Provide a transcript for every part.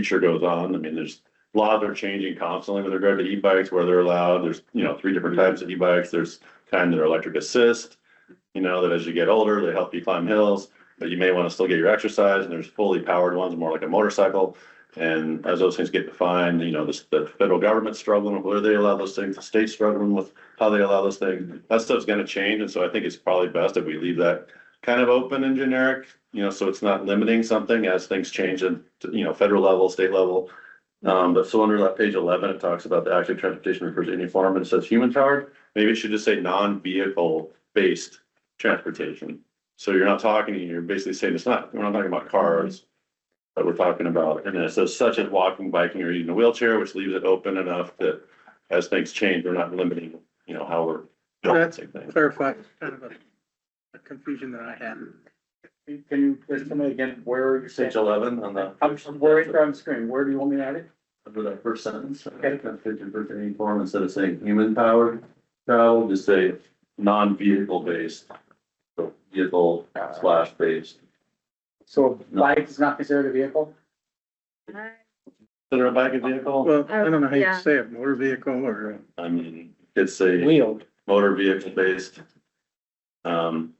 future goes on, I mean, there's laws are changing constantly with regard to e-bikes, where they're allowed, there's, you know, three different types of e-bikes, there's kind that are electric assist. You know, that as you get older, they help you climb hills, but you may want to still get your exercise, and there's fully powered ones, more like a motorcycle. And as those things get defined, you know, the, the federal government's struggling with where they allow those things, the state's struggling with how they allow those things. That stuff's gonna change, and so I think it's probably best if we leave that kind of open and generic, you know, so it's not limiting something as things change at, you know, federal level, state level. Um, but so under that page eleven, it talks about the active transportation refers to any form and it says human powered. Maybe it should just say non-vehicle based transportation. So you're not talking, you're basically saying it's not, we're not talking about cars. That we're talking about, and then it says such as walking, biking, or using a wheelchair, which leaves it open enough that as things change, we're not limiting, you know, how we're. balancing things. clarify, it's kind of a a confusion that I had. Can you just tell me again where you Page eleven on the. I'm worried from the screen. Where do you want me to add it? Under that first sentence, Okay. fifty percent any form, instead of saying human powered travel, just say non-vehicle based. So vehicle slash based. So bike is not considered a vehicle? Consider a bike a vehicle? Well, I don't know how you Yeah. say it, motor vehicle or. uh, I mean, it's a Wheeled. motor vehicle based. Um,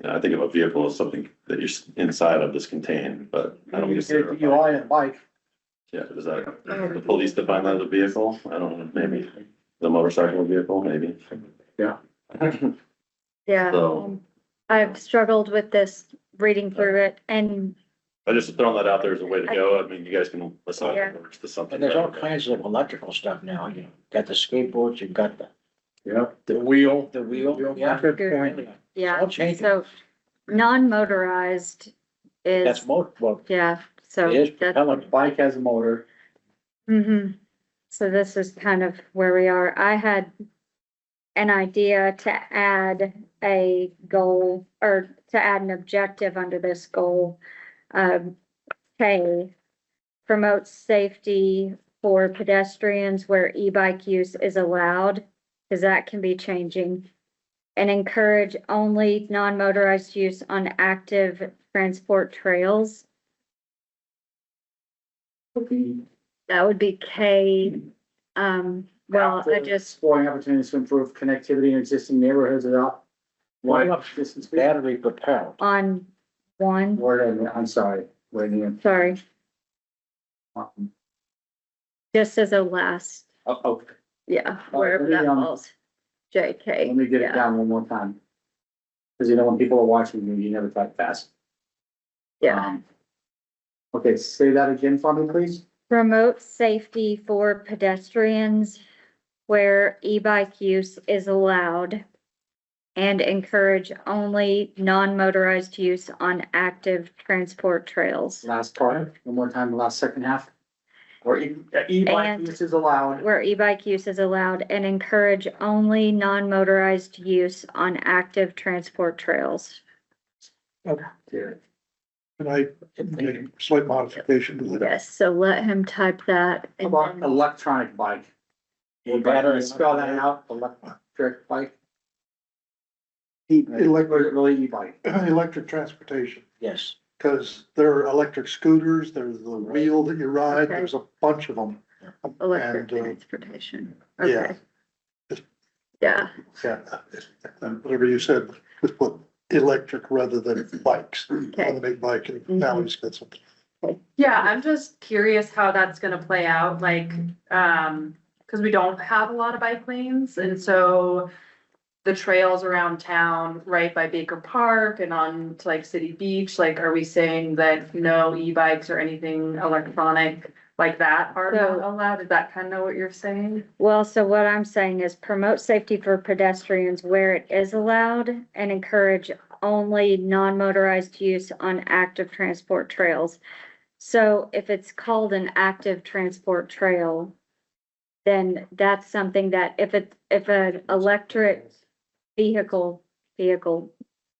you know, I think of a vehicle as something that you're s- inside of this contained, but I don't You consider. a said you bike- are in a bike. Yeah, is uh, that, the police define that as a vehicle? I don't know, maybe the motorcycle vehicle, maybe. Yeah. Yeah, So- um, I've struggled with this reading through it and I just throwing that out there as a way to go. I mean, you guys can assign Yeah. words to something. And there's all kinds of electrical stuff now, you got the skateboards, you've got the, Yeah. The wheel. the wheel, yeah. Good point. It's yeah, all changing, so non-motorized that's is, motor, well, yeah, so it is that's, propellant, Bike has a motor. hmm So this is kind of where we are. I had an idea to add a goal or to add an objective under this goal. Um, K, promote safety for pedestrians where e-bike use is allowed, because that can be changing. And encourage only non-motorized use on active transport trails. That would be K. Um, well, I Active just, Exploring opportunities to improve connectivity in existing neighborhoods without. Why wide not distance. battery propelled. on one, Where, did I- I'm sorry, where do you? sorry, Oh, just as a last, oh, yeah, Oh, wherever that let me, um, falls. JK. let me get it yeah. down one more time. Cause you know, when people are watching you, you never type fast. Yeah, Um, Okay, say that again for me, please. promote safety for pedestrians where e-bike use is allowed. And encourage only non-motorized use on active transport trails Last part, one more time, last second half. Or e- e-bike And- use is allowed. where e-bike use is allowed and encourage only non-motorized use on active transport trails. Dude, Can I make a slight modification to that? Yes, so let him type that How and about then electronic bike? Yeah, Battery, battery. spell that out, electric bike, Elec- or is it really e-bike? Electric transportation, Yes, because there are electric scooters, there's the wheel that you ride, Okay. there's a bunch of them. electric And, uh, transportation. yeah. Okay. Yeah, Yeah, and whatever you said, just put electric rather than bikes, on okay. the big bike, and now he's got something. Yeah, I'm just curious how that's gonna play out, like, um, cause we don't have a lot of bike lanes, and so. The trails around town, right by Baker Park and on to like City Beach, like, are we saying that no e-bikes or anything electronic? Like that are not So- allowed, is that kind of what you're saying? Well, so what I'm saying is promote safety for pedestrians where it is allowed and encourage only non-motorized use on active transport trails. So if it's called an active transport trail, then that's something that if it, if an electric vehicle, vehicle,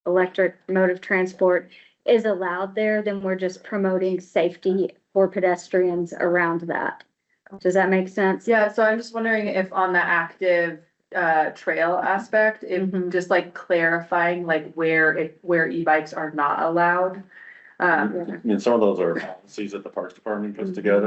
electric mode of transport is allowed there, then we're just promoting safety for pedestrians around that. Does that make sense? Yeah, so I'm just wondering if on the active, uh, trail aspect, if Mhm. just like clarifying like where it, where e-bikes are not allowed. Um, I mean, some of those are policies that the Parks Department puts together.